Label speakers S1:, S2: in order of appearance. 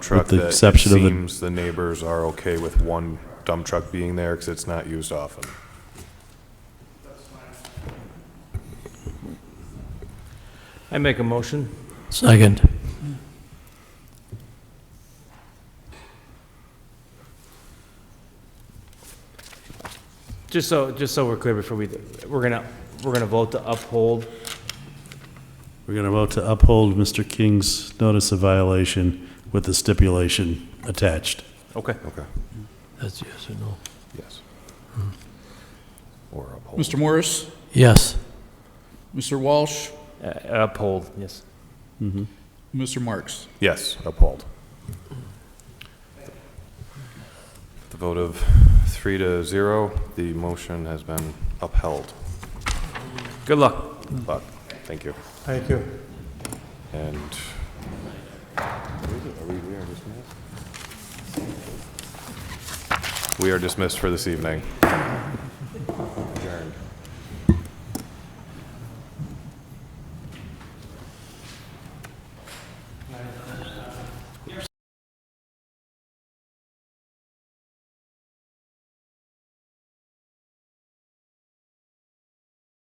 S1: truck
S2: the
S1: that it
S2: exception of the-
S1: seems the neighbors are okay with one dump truck being there because it's not used often.
S3: I make a motion.
S4: Second.
S3: Just so, just so we're clear before we, we're gonna, we're gonna vote to uphold.
S2: We're going to vote to uphold Mr. King's notice of violation with the stipulation attached.
S3: Okay.
S1: Okay,
S4: That's yes or no?
S1: yes.
S2: Hmm.
S1: Or uphold.
S5: Mr. Morris,
S4: Yes.
S5: Mr. Walsh,
S3: uh, Uphold, yes.
S5: Mr. Marks.
S1: Yes, uphold. The vote of three to zero, the motion has been upheld.
S3: Good luck.
S1: But, thank you.
S3: Hmm. Thank you.
S1: And we are dismissed for this evening. Adjourned.